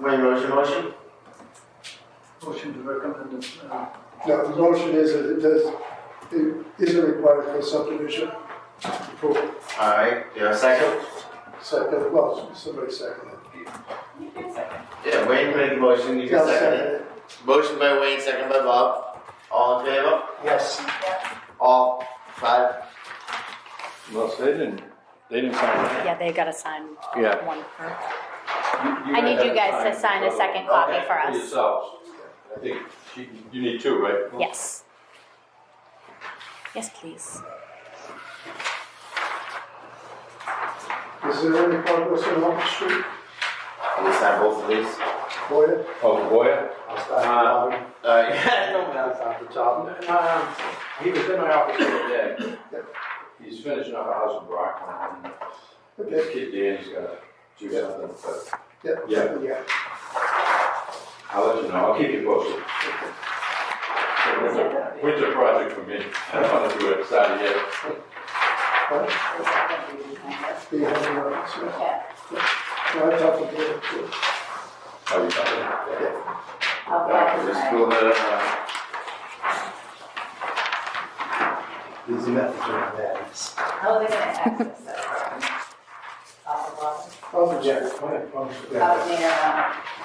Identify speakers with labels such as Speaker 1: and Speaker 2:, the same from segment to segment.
Speaker 1: Wayne, what's your motion?
Speaker 2: Motion to recommend, uh,
Speaker 3: No, the motion is that it does, it isn't required for subdivision approval.
Speaker 1: All right, do you have a second?
Speaker 3: Second, well, somebody second it.
Speaker 4: You can second.
Speaker 1: Yeah, Wayne made the motion, you
Speaker 3: Yeah,
Speaker 1: can second it.
Speaker 3: it.
Speaker 1: Motion by Wayne, second by Bob. All in favor?
Speaker 3: Yes.
Speaker 1: All five?
Speaker 5: Well, they didn't, they didn't sign
Speaker 6: Yeah, they gotta sign
Speaker 5: it. Yeah.
Speaker 6: one for.
Speaker 5: I
Speaker 6: I need you guys to sign a second copy for
Speaker 5: For
Speaker 6: us.
Speaker 5: yourselves. I think you- you need two, right?
Speaker 6: Yes. Yes, please.
Speaker 3: Is there any progress on Elm Street?
Speaker 1: Can we sign both of these?
Speaker 3: Boyer?
Speaker 5: Oh, Boyer?
Speaker 7: I'll start at
Speaker 1: All
Speaker 7: the
Speaker 1: right.
Speaker 7: bottom. I'll start at the top. Um, He was in my office the other day. He's finishing up a house in Brockton. and
Speaker 3: Okay.
Speaker 7: His kid Danny's got to do
Speaker 3: Yeah.
Speaker 7: something, but
Speaker 3: Yeah.
Speaker 7: Yeah.
Speaker 3: Yeah.
Speaker 7: I'll let you know. I'll keep you posted. Winter- Winter project for me. I don't want to do it Saturday yet.
Speaker 4: Is that gonna be behind us?
Speaker 3: Be having a, so
Speaker 4: Yeah,
Speaker 3: I talked to Boyer too.
Speaker 7: How you doing? Yeah.
Speaker 4: I'll
Speaker 1: Yeah,
Speaker 4: back
Speaker 1: we're
Speaker 4: it
Speaker 1: just
Speaker 4: up.
Speaker 1: doing it, uh,
Speaker 7: Easy message on that.
Speaker 4: How are Oh, they gonna access that? Off the bottom?
Speaker 7: Oh,
Speaker 3: I'll be Jack.
Speaker 4: Out near, uh,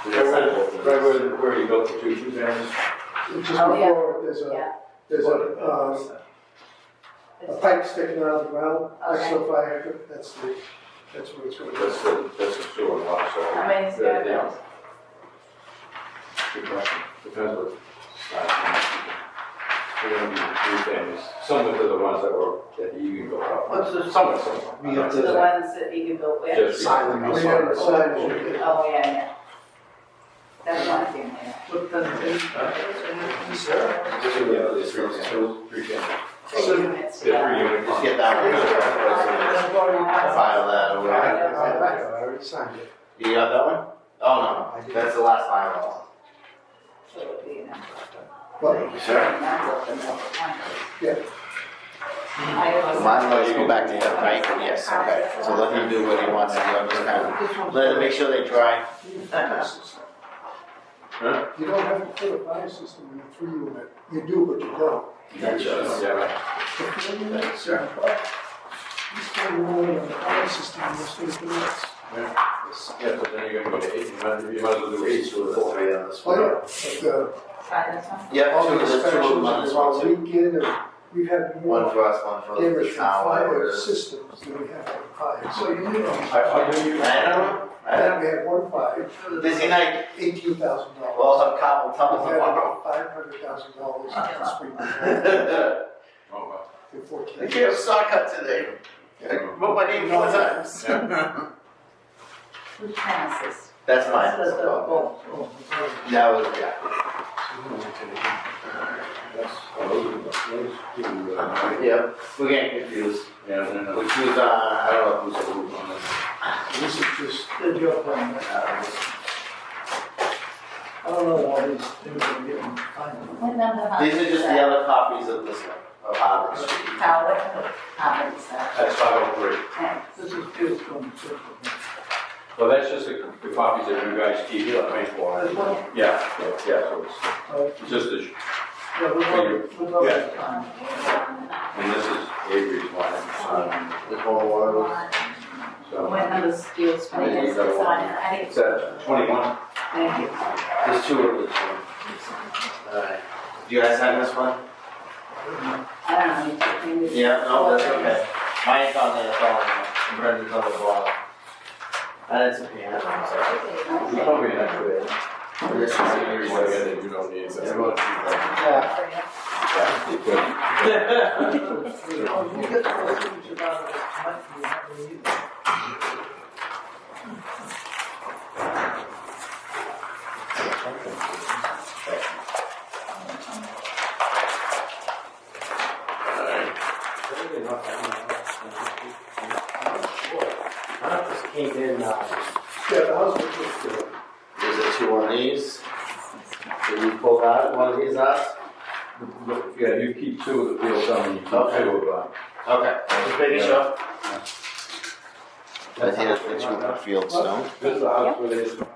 Speaker 7: Right where, right where- where you built the two, two families?
Speaker 3: Just
Speaker 4: Oh, yeah.
Speaker 3: before, there's a,
Speaker 4: yeah.
Speaker 3: there's a, uh, a
Speaker 4: it's-
Speaker 3: pipe sticking out of the ground, next to a fire hydrant, that's the, that's where it's going.
Speaker 7: That's the, that's the sewer lot, so.
Speaker 4: How many is
Speaker 7: Yeah,
Speaker 4: there?
Speaker 7: yeah. Good question. Depends what. We're gonna be three families, similar to the ones that were, that you can go up.
Speaker 2: What's the-
Speaker 7: Somewhat similar.
Speaker 2: We have
Speaker 4: The ones that you can build with?
Speaker 7: Just-
Speaker 3: We have a sign, yeah.
Speaker 4: Oh, yeah, yeah. That's one thing, yeah.
Speaker 2: what the,
Speaker 7: Just, yeah, these three families. Three families.
Speaker 4: Three units
Speaker 7: Yeah,
Speaker 4: together.
Speaker 7: three units.
Speaker 1: just get that one. File that over there.
Speaker 7: already signed it.
Speaker 1: You got that one? Oh, no, that's the last file.
Speaker 4: So it would be an
Speaker 3: Well,
Speaker 1: you, sir.
Speaker 4: amount of them, one.
Speaker 3: Yeah.
Speaker 4: I also-
Speaker 1: Mine, let's go back to him, right? Yes, okay. So let him do what he wants to do, I'm just kind of, let him make sure they dry.
Speaker 3: you don't have to put a fire system in a three unit, you do, but you don't.
Speaker 7: Yeah, right.
Speaker 3: Sure.
Speaker 7: Yeah, but then you're gonna go to eight, you might, you might as well do eight sewer. lots.
Speaker 1: on this
Speaker 3: Oh, yeah, but, uh,
Speaker 4: Sign this one?
Speaker 1: Yeah,
Speaker 3: all
Speaker 1: two,
Speaker 3: the
Speaker 1: there's two of them on
Speaker 3: inspections
Speaker 1: this
Speaker 3: are
Speaker 1: one,
Speaker 3: all
Speaker 1: too.
Speaker 3: weekend, and we've had
Speaker 1: One
Speaker 3: more
Speaker 1: for us, one for
Speaker 3: damage
Speaker 1: the
Speaker 3: from
Speaker 1: town, whatever
Speaker 3: fire
Speaker 1: it is.
Speaker 3: systems than we have from fire. So you know,
Speaker 7: I, I know you.
Speaker 1: I don't know, I
Speaker 3: and
Speaker 1: don't
Speaker 3: we had one fire,
Speaker 1: know. Busy night,
Speaker 3: eighteen thousand
Speaker 1: we'll
Speaker 3: dollars.
Speaker 1: all have cobble tumble tomorrow.
Speaker 3: Five hundred thousand dollars this week,
Speaker 1: I
Speaker 7: Oh, wow.
Speaker 3: in fourteen.
Speaker 1: gave a saw cut today, I wrote my name four times.
Speaker 4: Which one is this?
Speaker 1: That's mine.
Speaker 4: This is the bowl.
Speaker 3: Oh, okay.
Speaker 1: That was, yeah.
Speaker 7: That's, those, those two, uh,
Speaker 1: Yeah, we're getting confused.
Speaker 7: Yeah, no, no.
Speaker 1: Which was, uh, I don't know who's,
Speaker 3: This is just,
Speaker 2: the job plan,
Speaker 1: uh,
Speaker 2: I don't know why these things are getting finalized.
Speaker 4: What number? house
Speaker 1: These are
Speaker 4: is
Speaker 1: just the
Speaker 4: that?
Speaker 1: other copies of this one, of Harvard Street.
Speaker 4: Howard, Howard, so,
Speaker 7: That's five oh three.
Speaker 4: yeah.
Speaker 2: This is just from, the-
Speaker 7: Well, that's just the the copies that you guys keep, you're paying for.
Speaker 2: as well,
Speaker 7: Yeah, yeah, yeah, so it's-
Speaker 2: uh,
Speaker 7: it's just this,
Speaker 2: yeah, we're going, we're going to sign.
Speaker 7: and this is Avery's one, um,
Speaker 1: The total was.
Speaker 4: What
Speaker 7: so.
Speaker 4: number is yours,
Speaker 7: I think you
Speaker 4: please?
Speaker 7: got
Speaker 4: It's
Speaker 7: one.
Speaker 4: on it. I
Speaker 7: It's
Speaker 4: think-
Speaker 7: uh twenty-one.
Speaker 4: Thank you.
Speaker 1: There's two of this one. Alright. Do you guys sign this one?
Speaker 4: I don't know, you took me to-
Speaker 1: Yeah, no, that's okay. Mine's on the bottom, and Brendan's on the bottom. That's okay, that's what I'm sorry.
Speaker 7: You probably have to,
Speaker 1: This is yours.
Speaker 7: everyone that you don't need. but-
Speaker 1: Everyone.
Speaker 3: yeah,
Speaker 7: Yeah, you could.
Speaker 2: Oh, you get those things about it, it's not really needed.
Speaker 8: I just came in, uh,
Speaker 3: yeah, the house was just, uh,
Speaker 1: There's a two on these. Did you pull that, one of these out?
Speaker 7: Look, Yeah, you keep two of the wheels on, and you keep two
Speaker 1: Okay.
Speaker 7: of them.
Speaker 1: Okay. Just making sure.
Speaker 7: I think that's what you
Speaker 1: Fieldstone.
Speaker 7: This is the house where they,